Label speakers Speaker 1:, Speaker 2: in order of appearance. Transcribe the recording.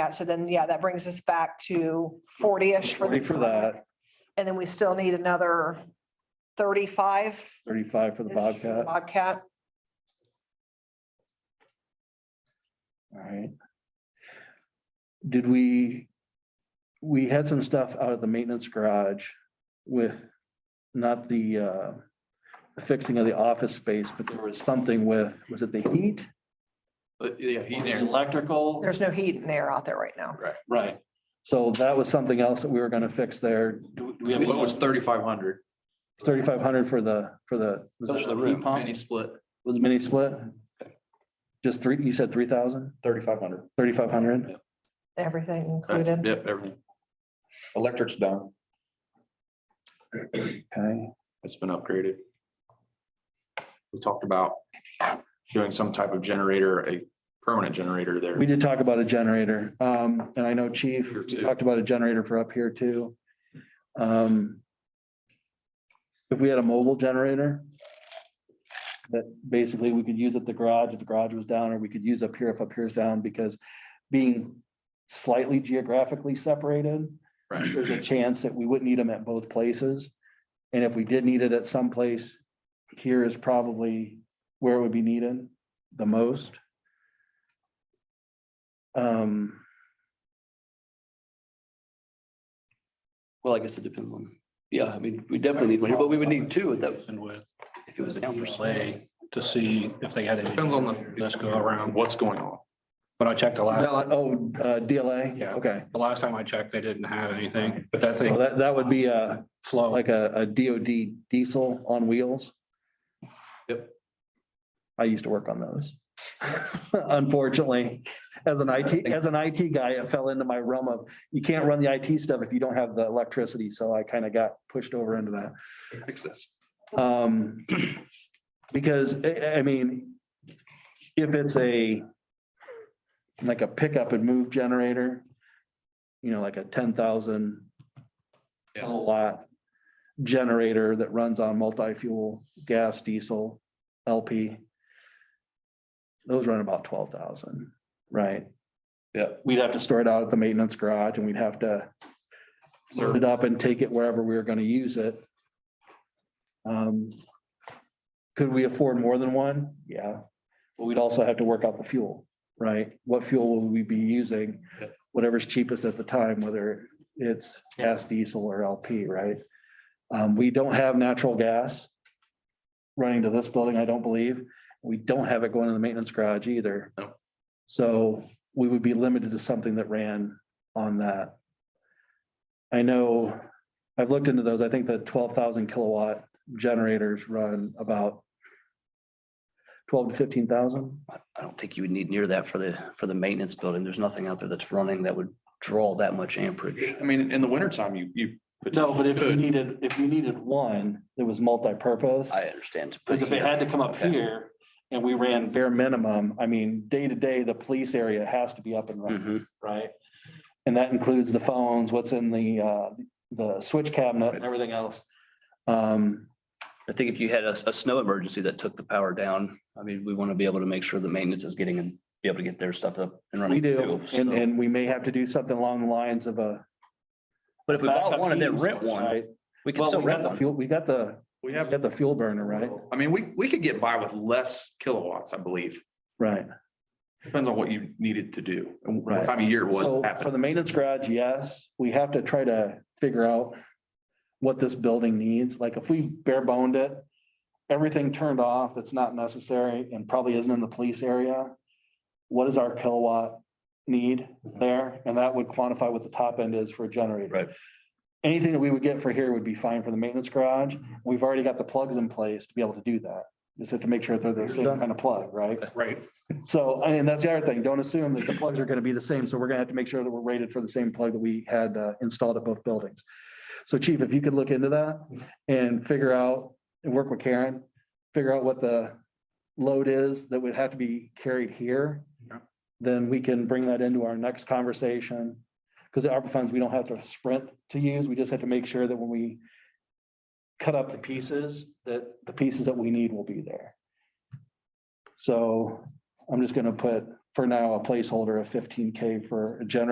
Speaker 1: Yeah, so then, yeah, that brings us back to forty-ish for the.
Speaker 2: Forty for that,
Speaker 1: And then we still need another thirty-five.
Speaker 2: thirty-five for the Bobcat. All
Speaker 1: Bobcat.
Speaker 2: right. Did we, we had some stuff out of the maintenance garage with not the uh fixing of the office space, but there was something with, was it the heat?
Speaker 3: But, Yeah, he's
Speaker 2: The
Speaker 3: there.
Speaker 2: Electrical?
Speaker 1: There's no heat and air out there right now.
Speaker 2: Right. So that was something else that we were gonna fix there. Do we have
Speaker 3: What was thirty-five hundred?
Speaker 2: Thirty-five hundred for the, for the. was that the heat pump?
Speaker 3: Any split.
Speaker 2: With the mini split? Just three, you said three thousand,
Speaker 4: Thirty-five hundred.
Speaker 2: thirty-five hundred?
Speaker 3: Yeah.
Speaker 1: Everything
Speaker 3: That's-
Speaker 1: included.
Speaker 3: Yep, everything.
Speaker 4: Electric's down.
Speaker 2: Okay,
Speaker 3: It's been upgraded. We talked about doing some type of generator, a permanent generator there.
Speaker 2: we did talk about a generator, um, and I know Chief,
Speaker 3: Here
Speaker 2: we
Speaker 3: too.
Speaker 2: talked about a generator for up here too. Um. If we had a mobile generator. That basically we could use at the garage if the garage was down, or we could use up here if up here's down, because being slightly geographically separated.
Speaker 3: Right.
Speaker 2: there's a chance that we wouldn't need them at both places. And if we did need it at some place, here is probably where it would be needed the most. Um,
Speaker 5: Well, I guess it depends on, yeah, I mean, we definitely need one here, but we would need two at that,
Speaker 6: And with,
Speaker 5: if it was a
Speaker 6: down for
Speaker 5: DUI.
Speaker 6: Slay to see if they had any.
Speaker 3: Depends on the.
Speaker 6: Let's go around.
Speaker 3: What's going on?
Speaker 6: But I checked the last,
Speaker 2: oh, uh, DLA?
Speaker 6: Yeah.
Speaker 2: Okay.
Speaker 6: the last time I checked, they didn't have anything, but that
Speaker 2: So
Speaker 6: thing
Speaker 2: that, that would be a,
Speaker 6: flow.
Speaker 2: like a, a DOD diesel on wheels.
Speaker 3: Yep.
Speaker 2: I used to work on those. Unfortunately, as an IT, as an IT guy, it fell into my realm of, you can't run the IT stuff if you don't have the electricity, so I kind of got pushed over into that.
Speaker 3: Fix this.
Speaker 2: Um, because, I, I mean, if it's a, like a pickup and move generator, you know, like a ten thousand
Speaker 3: Yeah.
Speaker 2: kilowatt generator that runs on multi-fuel, gas, diesel, LP. Those run about twelve thousand, right?
Speaker 3: Yeah.
Speaker 2: We'd have to store it out at the maintenance garage and we'd have to load it up and take it wherever we were gonna use it. Um, Could we afford more than one? Yeah, but we'd also have to work out the fuel, right? What fuel will we be using?
Speaker 3: Yeah.
Speaker 2: Whatever's cheapest at the time, whether it's gas, diesel or LP, right? Um, we don't have natural gas running to this building, I don't believe. We don't have it going in the maintenance garage either.
Speaker 3: No.
Speaker 2: So we would be limited to something that ran on that. I know, I've looked into those. I think the twelve thousand kilowatt generators run about twelve to fifteen thousand.
Speaker 5: I don't think you would need near that for the, for the maintenance building. There's nothing out there that's running that would draw that much amperage.
Speaker 3: I mean, in the wintertime, you, you.
Speaker 2: No, but if you
Speaker 3: could.
Speaker 2: needed, if you needed one that was multi-purpose.
Speaker 5: I understand.
Speaker 2: Because if it had to come up here and we ran bare minimum, I mean, day to day, the police area has to be up and running,
Speaker 5: Mhm.
Speaker 2: right? And that includes the phones, what's in the, uh, the switch cabinet and everything else. Um,
Speaker 5: I think if you had a, a snow emergency that took the power down, I mean, we want to be able to make sure the maintenance is getting and be able to get their stuff up and running.
Speaker 2: we do,
Speaker 5: too,
Speaker 2: and,
Speaker 5: so.
Speaker 2: and we may have to do something along the lines of a.
Speaker 5: But if we bought
Speaker 2: backup
Speaker 5: one and then
Speaker 2: heating
Speaker 5: rent
Speaker 2: source,
Speaker 5: one,
Speaker 2: right?
Speaker 5: we can
Speaker 2: Well,
Speaker 5: still
Speaker 2: we got
Speaker 5: rent
Speaker 2: the
Speaker 5: one.
Speaker 2: fuel, we got the, we
Speaker 3: We have,
Speaker 2: got the fuel burner, right?
Speaker 3: I mean, we, we could get by with less kilowatts, I believe.
Speaker 2: Right.
Speaker 3: Depends on what you needed to do and
Speaker 2: Right.
Speaker 3: what time of year it
Speaker 2: So
Speaker 3: was
Speaker 2: for
Speaker 3: happening.
Speaker 2: the maintenance garage, yes, we have to try to figure out what this building needs. Like if we bare boned it, everything turned off that's not necessary and probably isn't in the police area. What is our kilowatt need there? And that would quantify what the top end is for a generator.
Speaker 5: Right.
Speaker 2: Anything that we would get for here would be fine for the maintenance garage. We've already got the plugs in place to be able to do that. Just have to make sure that they're the same kind of plug, right?
Speaker 6: Right.
Speaker 2: So, I mean, that's the other thing. Don't assume that the plugs are gonna be the same. So we're gonna have to make sure that we're rated for the same plug that we had uh, installed at both buildings. So chief, if you could look into that and figure out, and work with Karen, figure out what the load is that would have to be carried here. Then we can bring that into our next conversation. Because the ARPA funds, we don't have to sprint to use. We just have to make sure that when we cut up the pieces, that the pieces that we need will be there. So I'm just gonna put for now a placeholder of fifteen K for a generator.